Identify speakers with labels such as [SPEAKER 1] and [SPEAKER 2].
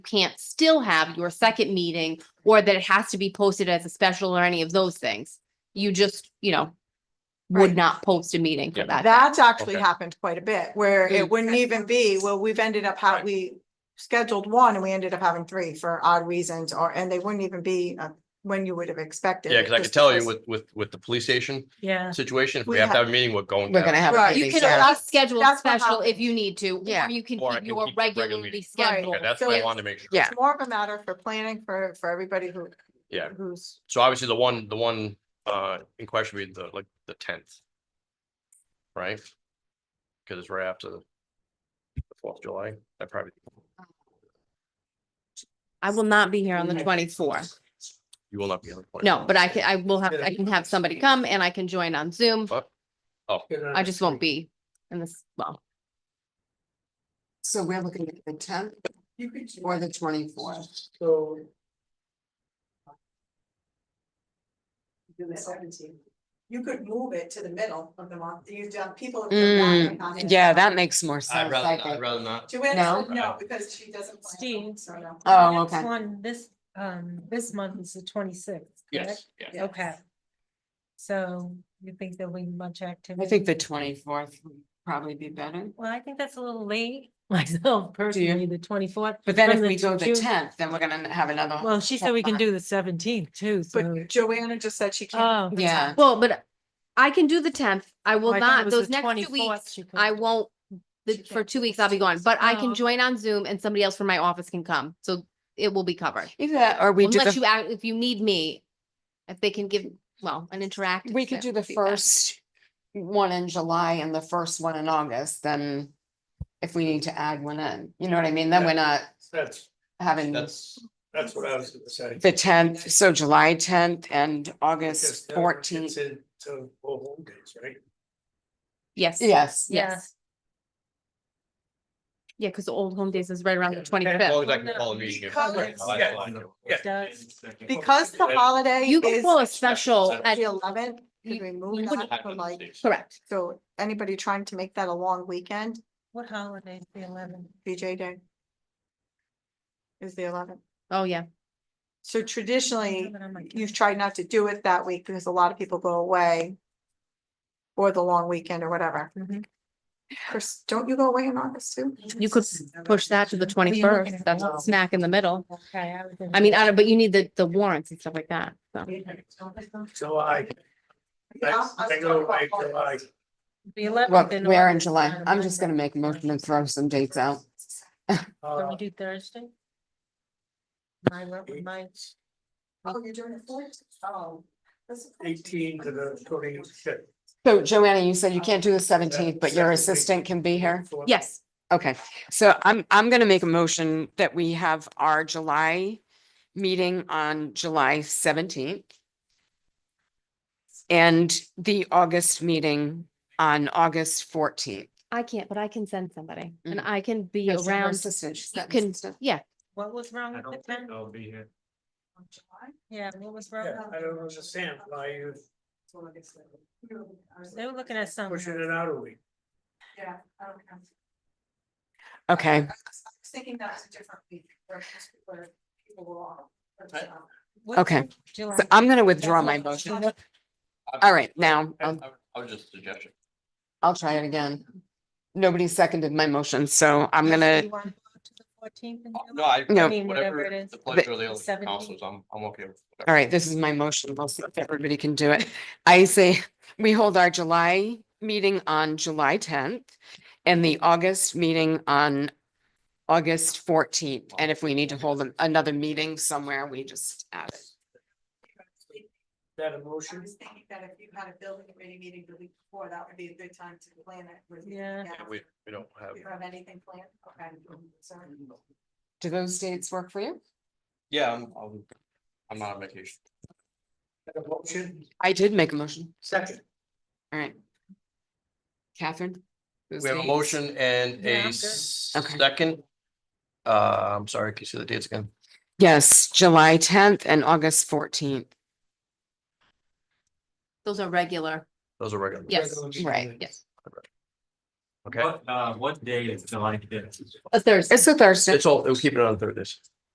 [SPEAKER 1] can't still have your second meeting or that it has to be posted as a special or any of those things. You just, you know, would
[SPEAKER 2] Right.
[SPEAKER 1] not post a meeting for
[SPEAKER 3] Yeah.
[SPEAKER 1] that.
[SPEAKER 2] That's actually
[SPEAKER 3] Okay.
[SPEAKER 2] happened quite a bit, where it
[SPEAKER 1] Mm.
[SPEAKER 2] wouldn't even be, well, we've ended up how,
[SPEAKER 3] Right.
[SPEAKER 2] we scheduled one and we ended up having three for odd reasons, or, and they wouldn't even be uh, when you would have expected.
[SPEAKER 3] Yeah, because I
[SPEAKER 2] just
[SPEAKER 3] could tell you
[SPEAKER 2] because-
[SPEAKER 3] with, with, with the police station
[SPEAKER 4] Yeah.
[SPEAKER 3] situation, if we
[SPEAKER 2] We
[SPEAKER 3] have to
[SPEAKER 2] have-
[SPEAKER 3] have a meeting, we're going
[SPEAKER 5] We're
[SPEAKER 3] to.
[SPEAKER 5] gonna
[SPEAKER 3] have-
[SPEAKER 5] have. a
[SPEAKER 2] Right,
[SPEAKER 1] You
[SPEAKER 5] meeting,
[SPEAKER 1] can
[SPEAKER 5] yeah.
[SPEAKER 1] always schedule a
[SPEAKER 2] that's what
[SPEAKER 1] special if
[SPEAKER 2] happened.
[SPEAKER 1] you need to,
[SPEAKER 5] Yeah.
[SPEAKER 1] or you can
[SPEAKER 3] Or I
[SPEAKER 1] keep
[SPEAKER 3] can
[SPEAKER 1] your
[SPEAKER 3] keep regular
[SPEAKER 1] regularly
[SPEAKER 3] meetings.
[SPEAKER 1] scheduled.
[SPEAKER 3] Okay, that's
[SPEAKER 2] So
[SPEAKER 3] what I
[SPEAKER 2] it's-
[SPEAKER 3] wanted to make sure.
[SPEAKER 5] Yeah.
[SPEAKER 2] It's more of a matter for planning for, for everybody who.
[SPEAKER 3] Yeah.
[SPEAKER 2] Who's,
[SPEAKER 3] So obviously the one, the one, uh, in question would be the, like, the tenth. Right? Because it's right after the Fourth of July, I probably,
[SPEAKER 1] I will not be here on the twenty-fourth.
[SPEAKER 3] you will not be on the point.
[SPEAKER 1] No, but I can, I will have, I can have somebody come and I can join on Zoom.
[SPEAKER 3] Oh,
[SPEAKER 1] I just won't be in this, well,
[SPEAKER 5] So we're looking at the tenth or the twenty-fourth.
[SPEAKER 6] So.
[SPEAKER 2] you could move it to the middle of the month, you've done, people.
[SPEAKER 5] Mm, yeah, that makes more sense.
[SPEAKER 3] I'd
[SPEAKER 5] I
[SPEAKER 3] rather,
[SPEAKER 5] think.
[SPEAKER 3] I'd rather not.
[SPEAKER 2] Joanne
[SPEAKER 5] No?
[SPEAKER 2] said no, because she doesn't. plan,
[SPEAKER 4] Steve.
[SPEAKER 2] so no.
[SPEAKER 5] Oh,
[SPEAKER 4] Next
[SPEAKER 5] okay.
[SPEAKER 4] One, this, um, this month is the twenty-sixth, correct?
[SPEAKER 3] Yes, yeah.
[SPEAKER 2] Yes.
[SPEAKER 4] Okay. So you think there'll be much activity?
[SPEAKER 5] I think the twenty-fourth would probably be better.
[SPEAKER 4] Well, I think that's a little late, myself personally, the twenty-fourth.
[SPEAKER 5] But then if
[SPEAKER 4] From the
[SPEAKER 5] we go the
[SPEAKER 4] June-
[SPEAKER 5] tenth, then we're gonna have another,
[SPEAKER 4] Well, she said we can do the seventeenth too, so.
[SPEAKER 2] But Joanna just said she can't.
[SPEAKER 4] Oh.
[SPEAKER 5] yeah.
[SPEAKER 1] well, but I can do the tenth. I will
[SPEAKER 4] Oh, I thought it
[SPEAKER 1] not,
[SPEAKER 4] was
[SPEAKER 1] those
[SPEAKER 4] the
[SPEAKER 1] next two
[SPEAKER 4] 24th
[SPEAKER 1] weeks,
[SPEAKER 4] she couldn't
[SPEAKER 1] I
[SPEAKER 4] do.
[SPEAKER 1] won't. The,
[SPEAKER 4] She
[SPEAKER 1] for
[SPEAKER 4] can't
[SPEAKER 1] two
[SPEAKER 4] do
[SPEAKER 1] weeks,
[SPEAKER 4] the
[SPEAKER 1] I'll be gone, but I can
[SPEAKER 4] Oh.
[SPEAKER 1] join on Zoom and somebody else from my office can come, so it will be covered.
[SPEAKER 5] Either that, or we do
[SPEAKER 1] Unless
[SPEAKER 5] the,
[SPEAKER 1] you, act- if you need me, if they can give, well, an interactive.
[SPEAKER 5] we could do the
[SPEAKER 1] feedback.
[SPEAKER 5] first one in July and the first one in August, then if we need to add one in, you know what I mean? Then
[SPEAKER 6] Yeah.
[SPEAKER 5] we're not
[SPEAKER 6] That's,
[SPEAKER 5] having the
[SPEAKER 6] that's, that's what I was gonna say.
[SPEAKER 5] tenth, so July tenth and
[SPEAKER 6] Because
[SPEAKER 5] August
[SPEAKER 6] now it gets
[SPEAKER 5] fourteenth.
[SPEAKER 6] Into full home days, right?
[SPEAKER 1] Yes.
[SPEAKER 5] Yes,
[SPEAKER 1] Yes. Yeah, because the old home days is right around the twenty-fifth.
[SPEAKER 3] As long as I can call a meeting. if-
[SPEAKER 2] Because-
[SPEAKER 3] Right, I- I like it.
[SPEAKER 4] It does.
[SPEAKER 6] Uh,
[SPEAKER 2] Because the holiday
[SPEAKER 1] You can
[SPEAKER 2] is
[SPEAKER 1] call a special at,
[SPEAKER 2] the eleventh,
[SPEAKER 1] You-
[SPEAKER 2] could we move
[SPEAKER 1] you wouldn't-
[SPEAKER 2] that from like,
[SPEAKER 1] correct.
[SPEAKER 2] so anybody trying to make that a long weekend,
[SPEAKER 4] What holiday is the eleventh?
[SPEAKER 2] VJ Day? Is the eleventh.
[SPEAKER 1] Oh, yeah.
[SPEAKER 2] So traditionally, you've tried not to do it that week because a lot of people go away. Or the long weekend or whatever.
[SPEAKER 1] Mm-hmm.
[SPEAKER 4] Mhm.
[SPEAKER 2] Chris, don't you go away in August too?
[SPEAKER 1] You could push that to the twenty-first. That's
[SPEAKER 4] Well-
[SPEAKER 1] smack in the middle.
[SPEAKER 4] Okay. I was
[SPEAKER 1] I mean, I don't, but you need the, the warrants and stuff like that. So
[SPEAKER 4] thinking-
[SPEAKER 6] July, I I go away July,
[SPEAKER 4] The eleventh.
[SPEAKER 5] well, we're in July. I'm just gonna make a motion and throw some dates out.
[SPEAKER 4] Can we
[SPEAKER 6] uh,
[SPEAKER 4] do Thursday? My, work with my,
[SPEAKER 2] Oh, you're doing it for it? Oh.
[SPEAKER 6] eighteen to the twenty fifth.
[SPEAKER 5] So Joanna, you said you can't do the seventeenth, but your assistant can be here?
[SPEAKER 1] Yes,
[SPEAKER 5] Okay, so I'm, I'm gonna make a motion that we have our July meeting on July seventeenth. And the August meeting on August fourteenth.
[SPEAKER 1] I can't, but I can send somebody and
[SPEAKER 5] Mm.
[SPEAKER 1] I can be around. You can, yeah,
[SPEAKER 4] what was wrong with the tenth?
[SPEAKER 6] I'll be here.
[SPEAKER 4] Yeah, what was wrong?
[SPEAKER 6] Yeah,
[SPEAKER 4] with
[SPEAKER 6] I
[SPEAKER 4] the-
[SPEAKER 6] don't understand why you
[SPEAKER 4] They were looking at
[SPEAKER 6] pushing
[SPEAKER 4] something.
[SPEAKER 6] it out a week.
[SPEAKER 2] Yeah, I don't know.
[SPEAKER 5] Okay,
[SPEAKER 2] I was Thinking that was a different week. where most people are- people were off, but,
[SPEAKER 6] I-
[SPEAKER 2] um,
[SPEAKER 4] What's
[SPEAKER 5] Okay.
[SPEAKER 4] the July?
[SPEAKER 5] so I'm gonna withdraw
[SPEAKER 4] That's
[SPEAKER 5] my
[SPEAKER 4] not-
[SPEAKER 5] motion. All right, now,
[SPEAKER 3] I
[SPEAKER 5] I'll,
[SPEAKER 3] I was just a suggestion.
[SPEAKER 5] I'll try it again. Nobody seconded my motion, so I'm gonna,
[SPEAKER 4] You want to go to the 14th in
[SPEAKER 3] No,
[SPEAKER 4] July?
[SPEAKER 3] I.
[SPEAKER 5] No.
[SPEAKER 4] mean, whatever it
[SPEAKER 3] Whatever
[SPEAKER 4] is.
[SPEAKER 3] the pleasure of the other
[SPEAKER 4] 17.
[SPEAKER 3] councils, I'm, I'm okay with. whatever.
[SPEAKER 5] all right, this is my motion. We'll see if everybody can do it. I say we hold our July meeting on July tenth and the August meeting on August fourteenth. And if we need to hold an- another meeting somewhere, we just add it.
[SPEAKER 6] That
[SPEAKER 2] I
[SPEAKER 6] emotion,
[SPEAKER 2] was thinking that if you had a building committee meeting the week before, that would be a good time to plan it. with-
[SPEAKER 4] Yeah.
[SPEAKER 3] Yeah, We, Mm-hmm. we don't have,
[SPEAKER 2] Do you have anything planned? Okay. Sorry.
[SPEAKER 5] Do those dates work for you?
[SPEAKER 3] yeah, I'm, I'm, I'm not on vacation.
[SPEAKER 6] that emotion,
[SPEAKER 5] I did make a motion.
[SPEAKER 6] second.
[SPEAKER 5] All right. Catherine? those
[SPEAKER 3] We have a
[SPEAKER 5] dates?
[SPEAKER 3] motion and
[SPEAKER 4] Yeah, I'm
[SPEAKER 3] a
[SPEAKER 4] good.
[SPEAKER 5] Okay.
[SPEAKER 3] second. Uh, I'm sorry, can you see the dates again?
[SPEAKER 5] Yes, July tenth and August fourteenth.
[SPEAKER 1] those are regular.
[SPEAKER 3] Those are regular.
[SPEAKER 1] Yes.
[SPEAKER 6] Regular meeting
[SPEAKER 5] Right.
[SPEAKER 6] minutes.
[SPEAKER 1] Yes.
[SPEAKER 3] Okay,
[SPEAKER 7] What, uh, what day is July fifth?
[SPEAKER 8] a Thursday.
[SPEAKER 6] It's a Thursday.
[SPEAKER 3] it's all, we'll keep it on Thursdays.